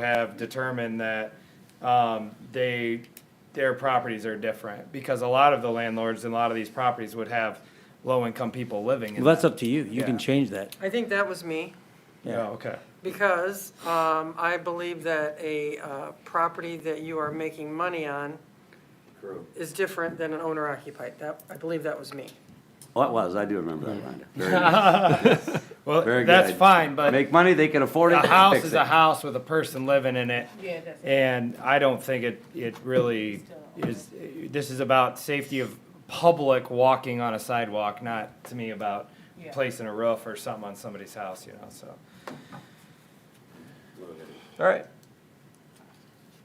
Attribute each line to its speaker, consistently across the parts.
Speaker 1: have determined that um, they, their properties are different. Because a lot of the landlords and a lot of these properties would have low-income people living in
Speaker 2: Well, that's
Speaker 1: them.
Speaker 2: up to you. You
Speaker 1: Yeah.
Speaker 2: can change that.
Speaker 3: I think that was me,
Speaker 2: yeah.
Speaker 1: Oh, okay.
Speaker 3: because um, I believe that a uh, property that you are making money on is different than an owner occupied. That, I believe that was me.
Speaker 4: Well, Oh, it was, I do remember that, Rhonda. Very
Speaker 1: Well,
Speaker 4: Very
Speaker 1: that's
Speaker 4: good.
Speaker 1: fine,
Speaker 4: good.
Speaker 1: but
Speaker 4: Make money, they can afford it,
Speaker 1: a house
Speaker 4: fix
Speaker 1: is
Speaker 4: it.
Speaker 1: a house with a person living in it.
Speaker 5: Yeah, that's.
Speaker 1: And I don't think it, it really is, this is about safety of public walking on a sidewalk, not to me about
Speaker 5: Yeah.
Speaker 1: placing a roof or something on somebody's house, you know, so.
Speaker 6: All right.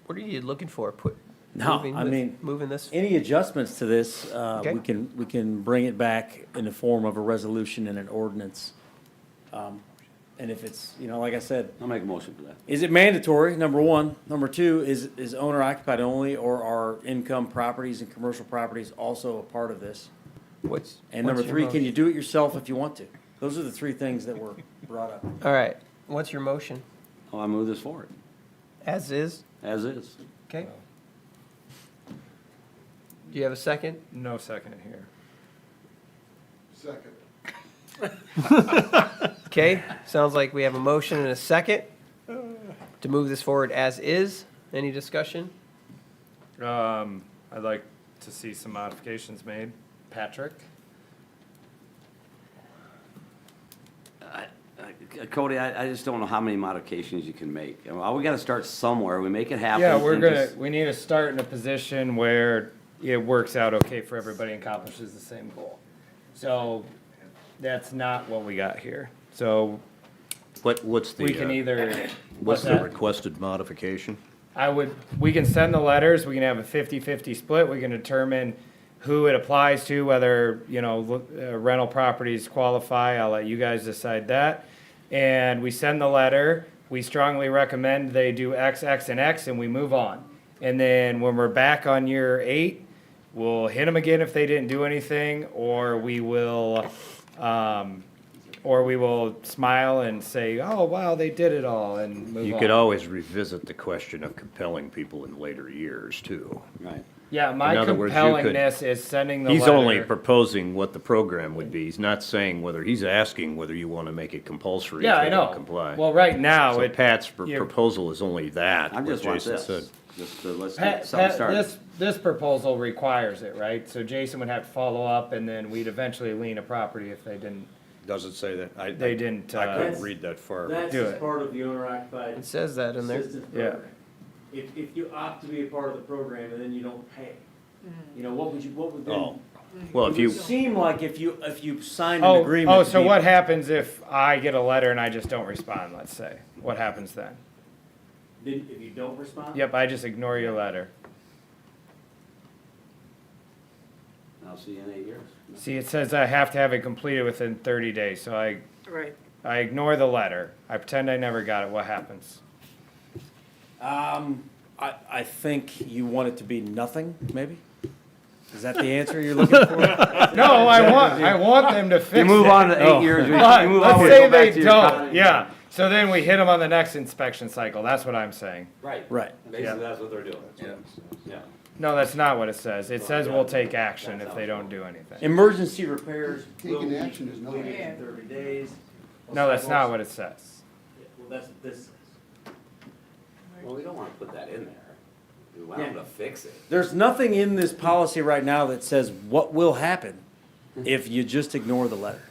Speaker 6: What are you looking for? Put.
Speaker 2: No,
Speaker 6: moving
Speaker 2: I
Speaker 6: thi-
Speaker 2: mean-
Speaker 6: Moving this?
Speaker 2: Any adjustments to this, uh,
Speaker 6: Okay.
Speaker 2: we can, we can bring it back in the form of a resolution and an ordinance. Um, And if it's, you know, like I said,
Speaker 4: I'll make a motion for that.
Speaker 2: is it mandatory, number one? Number two, is, is owner occupied only or are income properties and commercial properties also a part of this?
Speaker 6: What's?
Speaker 2: And
Speaker 6: what's
Speaker 2: number
Speaker 6: your
Speaker 2: three, can
Speaker 6: motion?
Speaker 2: you do it yourself if you want to? Those are the three things that were brought up.
Speaker 6: All right. What's your motion?
Speaker 4: Oh, I move this forward,
Speaker 6: As is?
Speaker 4: as is.
Speaker 6: Okay. Do you have a second?
Speaker 1: No second here.
Speaker 7: Second.
Speaker 6: Okay. Sounds like we have a motion and a second to move this forward as is. Any discussion?
Speaker 1: Um, I'd like to see some modifications made. Patrick?
Speaker 4: Uh, Cody, I, I just don't know how many modifications you can make. I mean, we gotta start somewhere, we make it happen.
Speaker 1: Yeah, we're
Speaker 4: and
Speaker 1: gonna,
Speaker 4: just-
Speaker 1: we need to start in a position where it works out okay for everybody and accomplishes the same goal. So that's not what we got here. So
Speaker 8: What, what's the,
Speaker 1: we can
Speaker 8: uh,
Speaker 1: either,
Speaker 8: what's
Speaker 1: what's
Speaker 8: the
Speaker 1: that?
Speaker 8: requested modification?
Speaker 1: I would, we can send the letters, we can have a 50-50 split, we can determine who it applies to, whether, you know, lo- uh, rental properties qualify, I'll let you guys decide that. And we send the letter, we strongly recommend they do X, X, and X, and we move on. And then when we're back on year eight, we'll hit them again if they didn't do anything, or we will, um, or we will smile and say, oh, wow, they did it all, and move on.
Speaker 8: You could always revisit the question of compelling people in later years, too.
Speaker 4: Right.
Speaker 1: Yeah, my
Speaker 8: In other words, you could-
Speaker 1: compellingness is sending the
Speaker 8: He's
Speaker 1: letter.
Speaker 8: only proposing what the program would be. He's not saying whether, he's asking whether you want to make it compulsory
Speaker 1: yeah,
Speaker 8: if
Speaker 1: I
Speaker 8: they don't
Speaker 1: know.
Speaker 8: comply.
Speaker 1: Well, right now
Speaker 8: So
Speaker 1: it
Speaker 8: Pat's pr-
Speaker 1: yeah.
Speaker 8: proposal is only that,
Speaker 4: I
Speaker 8: what
Speaker 4: just want
Speaker 8: Jason
Speaker 4: this,
Speaker 8: said.
Speaker 4: just to, let's
Speaker 1: Pat-
Speaker 4: get something
Speaker 1: Pat,
Speaker 4: started.
Speaker 1: this this proposal requires it, right? So Jason would have to follow up, and then we'd eventually lien a property if they didn't.
Speaker 8: Doesn't say that. I,
Speaker 1: They didn't, I couldn't
Speaker 2: uh, read
Speaker 8: that far.
Speaker 1: Do just it.
Speaker 2: part of the owner occupied
Speaker 6: It says that in there.
Speaker 2: assistance
Speaker 1: Yeah.
Speaker 2: program. If, if you opt to be a part of the program and then you don't pay, you know, what would you, what would
Speaker 8: Oh,
Speaker 2: then?
Speaker 8: well,
Speaker 2: It
Speaker 8: if
Speaker 2: would
Speaker 8: you,
Speaker 2: Seem like if you, if you signed an
Speaker 1: Oh,
Speaker 2: agreement.
Speaker 1: oh,
Speaker 2: to
Speaker 1: so
Speaker 2: be-
Speaker 1: what happens if I get a letter and I just don't respond? Let's say, what happens then?
Speaker 2: Then if you don't respond?
Speaker 1: Yep, I just ignore your letter.
Speaker 4: I'll see you in eight years.
Speaker 1: See, it says I have to have it completed within 30 days, so I
Speaker 3: Right.
Speaker 1: I ignore the letter. I pretend I never got it. What happens?
Speaker 2: Um, I, I think you want it to be nothing, maybe? Is that the answer you're looking for?
Speaker 1: No, I want I want them to fix
Speaker 4: You move
Speaker 1: it.
Speaker 4: on to
Speaker 2: Oh.
Speaker 4: eight years, you you move
Speaker 1: But
Speaker 4: on, we
Speaker 1: let's
Speaker 4: go
Speaker 1: say
Speaker 4: back to
Speaker 1: they
Speaker 4: your
Speaker 1: don't,
Speaker 4: company.
Speaker 1: yeah. So then we hit them on the next inspection cycle. That's what I'm saying.
Speaker 4: Right.
Speaker 2: Right.
Speaker 4: Basically, that's what they're doing. Yeah.
Speaker 1: No, that's not what it says. It says we'll take action if they don't do anything.
Speaker 2: Emergency repairs will
Speaker 7: Taking
Speaker 2: be
Speaker 7: action is not-
Speaker 2: completed in thirty days.
Speaker 1: No, that's not what it says.
Speaker 2: Well, that's what this says.
Speaker 4: Well, we don't wanna put that in there. We want them to fix it.
Speaker 2: There's nothing in this policy right now that says what will happen
Speaker 7: Hmm.
Speaker 2: if you just ignore the letter.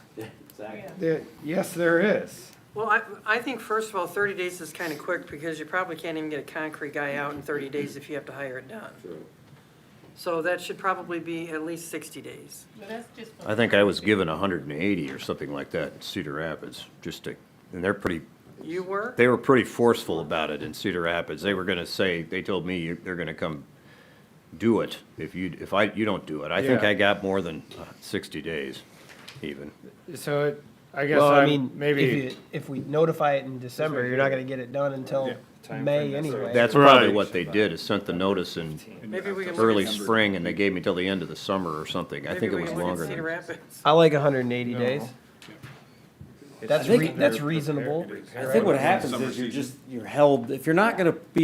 Speaker 4: Exactly.
Speaker 1: Yes, there is.
Speaker 3: Well, I, I think first of all, 30 days is kind of quick because you probably can't even get a concrete guy out in 30 days if you have to hire it done.
Speaker 4: True.
Speaker 3: So that should probably be at least 60 days.
Speaker 5: Well, that's just. for-
Speaker 8: I think I was given hundred and eighty or something like that in Cedar Rapids, just to, and they're pretty,
Speaker 3: You were?
Speaker 8: they were pretty forceful about it in Cedar Rapids. They were gonna say, they told me you- they're gonna come do it if you, if I, you don't do it. I think
Speaker 1: Yeah.
Speaker 8: I got more than uh, sixty days even.
Speaker 1: So it, I guess
Speaker 6: Well, I
Speaker 1: i
Speaker 6: mean, if,
Speaker 1: maybe,
Speaker 6: you- if we notify it in December, you're not gonna get it done until
Speaker 1: Yeah, time
Speaker 6: May
Speaker 1: frame,
Speaker 6: anyway.
Speaker 8: That's probably what they did, is sent the notice in
Speaker 3: Maybe we can look
Speaker 8: early
Speaker 3: at,
Speaker 8: spring and they gave me till the end of the summer or something. I
Speaker 3: maybe
Speaker 8: think it
Speaker 3: we
Speaker 8: was
Speaker 3: can look
Speaker 8: longer
Speaker 3: at Cedar
Speaker 8: than,
Speaker 3: Rapids.
Speaker 6: I like hundred and eighty
Speaker 1: No.
Speaker 6: days.
Speaker 1: It's
Speaker 9: That's
Speaker 1: three-
Speaker 9: re- that's
Speaker 1: they're prepared
Speaker 9: reasonable.
Speaker 1: to do
Speaker 6: I
Speaker 1: zero.
Speaker 6: think what happens is you're just, you're held, if you're not gonna be